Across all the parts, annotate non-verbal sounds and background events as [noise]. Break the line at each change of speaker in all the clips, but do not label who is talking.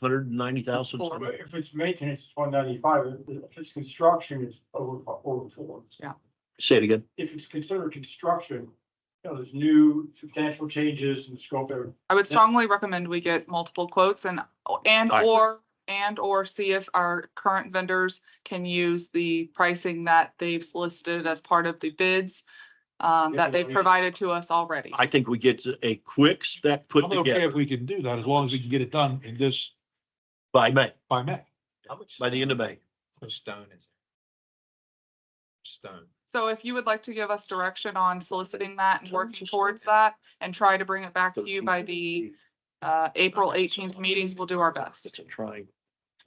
hundred and ninety thousand.
But If it's maintenance, it's one ninety-five, if it's construction, it's over, over four.
Say it again.
If it's considered construction, you know, there's new substantial changes in the scope of.
I would strongly recommend we get multiple quotes and, and
I agree.
or, and or see if our current vendors can use the pricing that they've solicited as part of the bids um,
Yeah,
that they've
we-
provided to us already.
I think we get a quick spec put
I'm okay if
together
we can do that, as long as we can get it done in this,
by May,
by May.
by the end of May.
Stone is. Stone.
So if you would like to give us direction on soliciting that and
Sure,
working
just-
towards that and try to bring it back to you by the uh, April eighteenth meetings, we'll do our best.
Trying.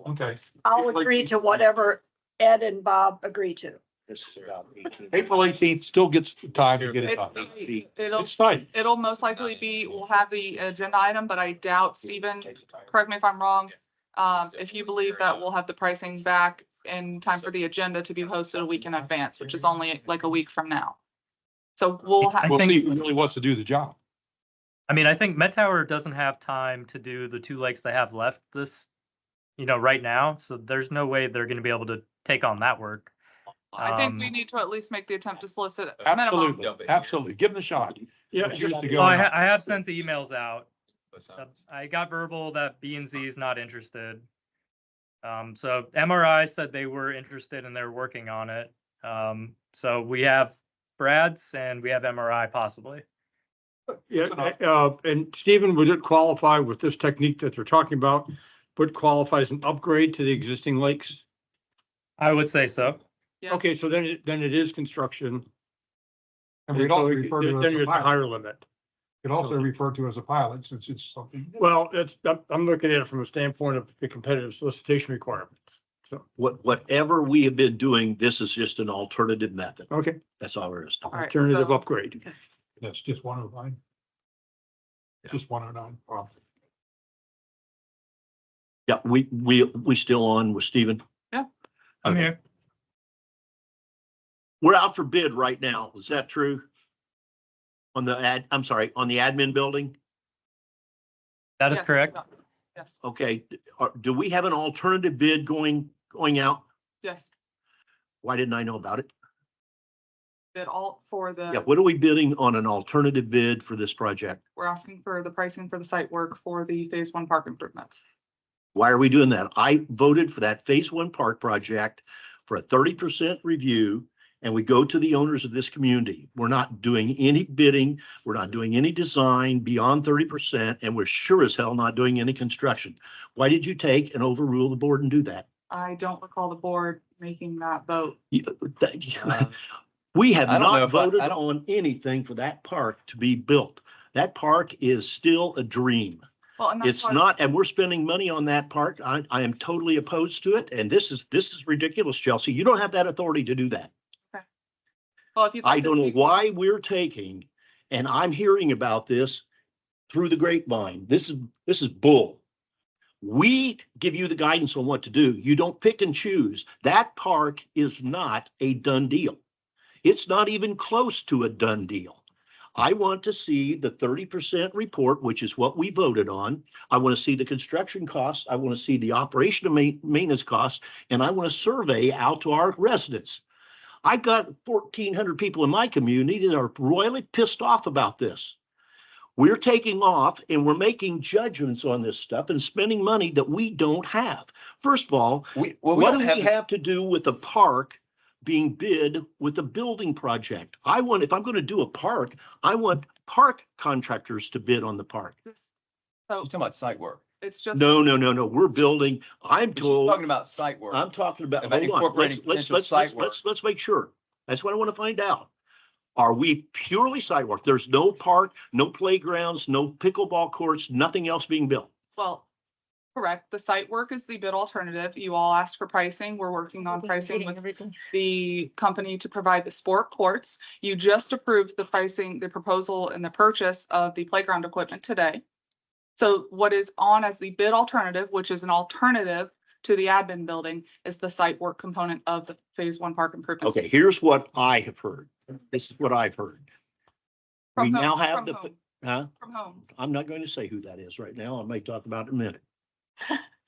Okay.
I'll
Like-
agree to whatever Ed and Bob agree to.
This is about eighteen.
April eighteenth still gets the time to get it done.
It- It'll,
It's tight.
it'll most likely be, we'll have the agenda item, but I doubt, Stephen, correct me if I'm wrong. Um, if you believe that we'll have the pricing back in time for the agenda to be posted a week in advance, which is only like a week from now. So we'll have,
We'll
think-
see who really wants to do the job.
I mean, I think Met Tower doesn't have time to do the two lakes they have left this, you know, right now. So there's no way they're going to be able to take on that work.
I think we
um,
need to at least make the attempt to solicit. a minimum.
Absolutely, absolutely. Give them the shot.
Yeah,
Just to
Oh,
go
I,
on.
ha- I have sent the emails out. I got verbal that B and Z is not interested. Um, so MRI said they were interested and they're working on it. Um, so we have Brad's and we have MRI possibly.
Yeah, uh, and Stephen would it qualify with this technique that they're talking about, but qualifies an upgrade to the existing lakes?
I would say so.
Yeah.
Okay, so then, it- then it is construction.
And we'd
so
also
it-
refer to
Then you're
it as a
at the
pilot.
higher limit.
Could also refer to it as a pilot, since it's something. new.
Well, it's, I'm, I'm looking at it from a standpoint of the competitive solicitation requirements.
What, whatever we have been doing, this is just an alternative method.
Okay,
That's all there is. to it.
All right,
alternative
so-
upgrade.
That's just one oh nine. Just one oh nine.
Yeah, we, we, we still on with Stephen.
I'm
Okay.
here.
We're out for bid right now. Is that true? On the ad, I'm sorry, on the admin building?
That is
Yes,
correct.
yeah. Yes,
Okay, are- do we have an alternative bid going, going out?
yes,
Why didn't I know about it?
bid all for
Yeah,
the,
what are we bidding on an alternative bid for this project?
we're asking for the pricing for the site work for the phase one park improvements.
Why are we doing that? I voted for that phase one park project for a thirty percent review. And we go to the owners of this community. We're not doing any bidding. We're not doing any design beyond thirty percent and we're sure as hell not doing any construction. Why did you take and overrule the board and do that? [laughs]
I don't recall the board making that vote.
You- that- We have
Uh, I don't know
not
if I- I
voted
don't-
on anything for that park to be built. That park is still a dream.
Well, and that's
It's
why-
not, and we're spending money on that park. I, I am totally opposed to it. And this is, this is ridiculous, Chelsea. You don't have that authority to do that.
Well, if you'd like
I
to
don't know
speak-
why we're taking, and I'm hearing about this through the grapevine. This is, this is bull. We give you the guidance on what to do. You don't pick and choose. That park is not a done deal. It's not even close to a done deal. I want to see the thirty percent report, which is what we voted on. I want to see the construction costs. I want to see the operation and ma- maintenance costs, and I want to survey out to our residents. I got fourteen hundred people in my community that are royally pissed off about this. We're taking off and we're making judgments on this stuff and spending money that we don't have. First of all,
We, well, we
what
don't
do
have.
we
this-
have to do with the park being bid with a building project? I want, if I'm going to do a park, I want park contractors to bid on the park.
this-
You're talking about site work.
It's just.
No, no, no, no, we're building, I'm
We're just
told.
Talking about site work.
I'm talking about,
About
hold on,
incorporating
let's, let's,
potential
let's,
site
let's,
work.
let's, let's make sure. That's what I want to find out. Are we purely site work? There's no park, no playgrounds, no pickleball courts, nothing else being built.
Well, correct. The site work is the bid alternative. You all asked for pricing. We're working on pricing with the company to provide the sport courts. You just approved the pricing, the proposal and the purchase of the playground equipment today. So what is on as the bid alternative, which is an alternative to the admin building, is the site work component of the phase one park improvements.
Okay, here's what I have heard. This is what I've heard.
From
we
whom-
now have
from
the
whom?
Huh?
From home.
I'm not going to say who that is right now. I may talk about it in a minute.